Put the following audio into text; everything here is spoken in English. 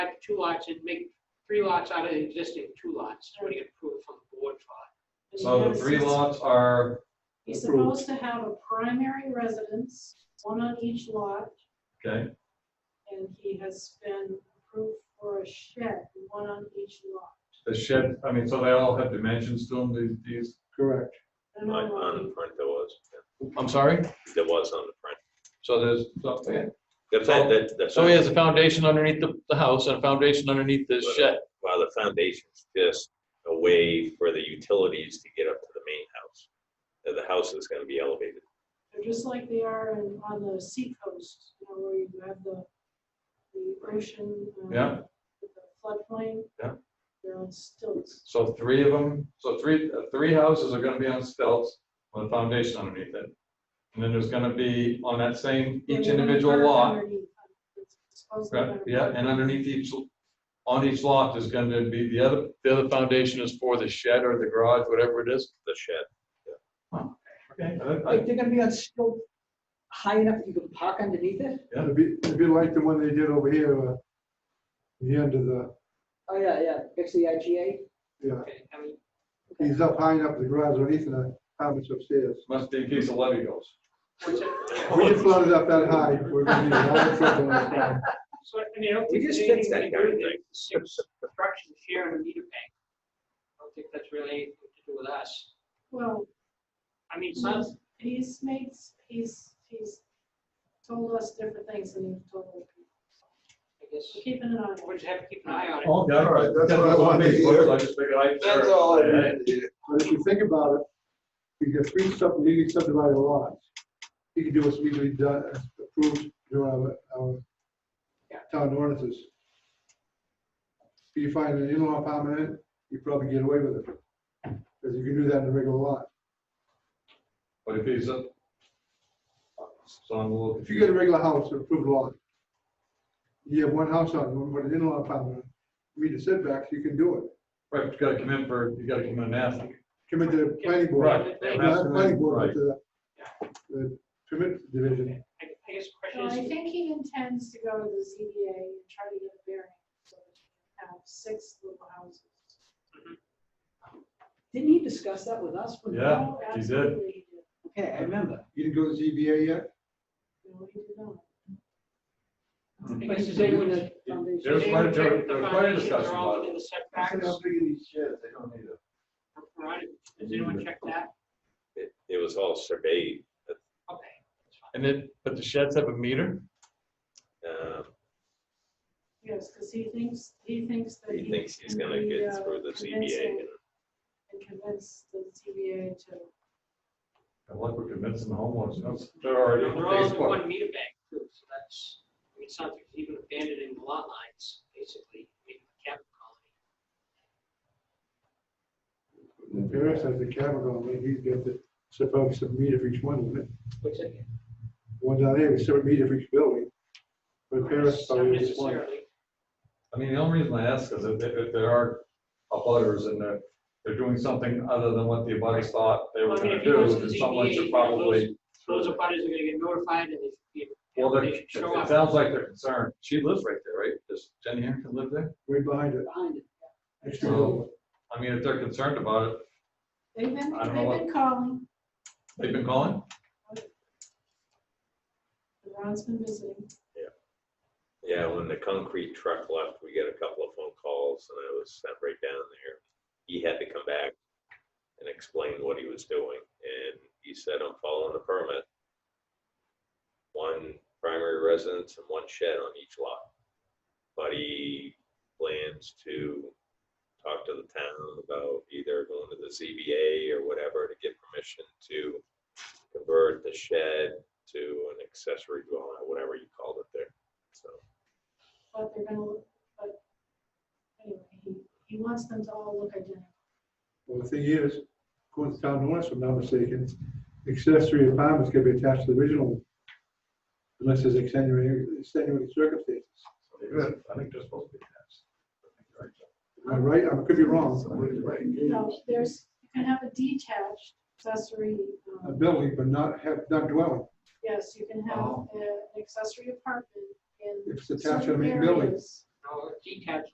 have two lots and make three lots out of the existing two lots. It's already approved from the board for So the three lots are, You're approved. supposed to have a primary residence, one on each lot, okay, and he has been approved for a shed, one on each lot. the shed, I mean, so they all have dimensions to them, these- these, Correct. I don't On, know on the if front, there was, I'm sorry? yeah. there was on the front. So there's, so- The fa- the- the Oh, So he has a foundation underneath the, the house and a foundation underneath the shed. Well, the foundation's just a way for the utilities to get up to the main house. And The house is gonna be elevated. They're just like they are in- on the seacoast, you know, where you have the, the ocean. um, Yeah. with The floodplain. Yeah. They're on stilts. so three of them, so three, uh, three houses are gonna be on stilts with a foundation underneath it. And then there's gonna be on that same, each They're gonna individual park lot, underneath. It's supposed to right, be- yeah, and underneath each, on each lot is gonna be the other, The other foundation is for the shed or the garage, whatever it is. The shed, okay, I- I- Like, they're gonna be on still high enough that you can park underneath it? It'd be, it'd be like the one they did over here, uh, the end of the, Oh, yeah, yeah, next to the IGA. yeah, it. I mean, he's up high enough in the garage underneath the apartments upstairs. must be a piece of levy goals. what's that? We just flooded up that high. we're gonna need a lot of trouble in the town. So, I mean, I don't We think. just there's fixed anything to do that kind of with thing. the Six structures here in a meter bank. I don't think that's really anything to do with us. Well, I mean, some, he's made, he's, he's told us different things and he's told other people. I guess, We're keeping an eye on it. we'll just have to keep an eye on it. Okay, all right, That's what I wanted to hear. I just figured I'd- That's all I needed. But if you think about it, you get three sub, legally subdivided lots. You can do what's legally done, approved through our, our town ordinances. If you find an in-law apartment, in it, you probably get away with it. Because you can do that in a regular lot. But if he's up. So I'm a little If you get confused. a regular house, an approved lot, you have one house on, it, one, one in-law apartment, meet the setbacks, you can do it. Right, but you gotta come in for, you gotta come in and ask. Come into the planning board. Right, they have Not to- planning board, right. but the, the permit division. I I guess the No, I question is, think he intends to go to the ZBA and try to get a variance, so that he can have six little houses. Didn't he discuss that with us? when- Yeah, Oh, he did. absolutely, he did. Okay, I remember. You didn't go to ZBA yet? No, he did not. But Because he's they doing would- the foundation. There's quite a, They would- there was quite a discussion They're all about within it. the setbacks, these sheds, they don't need it. right? Does anyone check that? it, it was all surveyed, Okay. that's fine. And then, but the sheds have a meter? um, Yes, because he thinks, he thinks that. he thinks he's can gonna be, get uh, through the convincing ZBA and And convince the ZBA to, And look, we're convincing the homeowners, no, they're already on They're all in Facebook. one meter bank too, so that's, I mean, it's not like even abandoning the lot lines, basically, making a capital colony. Paris has the camera on, like he's got the, so probably some meter for each one, isn't it? Which again, One down there, we seven meter for each building. But Paris not probably is one. necessarily, I mean, the only reason I ask is if, if there are abutters and they're, they're doing something other than what the abutters thought they were Well, I mean, gonna if he goes do, to then the someone ZBA, should those- probably. those abutters are gonna get notified and they should be. Well, they're, they it should show up. sounds like they're concerned. She lives right there, right? Does Jenny Harrington live there? Right behind it. Behind it. next to So, it. I mean, if they're concerned about it, they've been, I don't know they've been calling, they've been calling? Ron's been visiting. Yeah, when the concrete truck left, we got a couple of phone calls and I was sent right down there. He had to come back and explain what he was doing and he said, I'm following the permit. One primary residence and one shed on each lot. But he plans to talk to the town about either going to the ZBA or whatever to get permission to convert the shed to an accessory dwelling, or whatever you called it there, so. but they're gonna, look but anyway, he, he wants them to all look identical. Well, the thing is, according to town ordinance, if I'm not mistaken, accessory apartments can be attached to the original unless there's extenuating, extenuating circumstances. I think they're supposed to be attached. Am I right? I could be wrong. No, there's, you can have a detached accessory, um, A building, but not have, not dwelling. yes, you can have Oh. a- an accessory apartment in If it's attached to the certain main building. areas. No, detached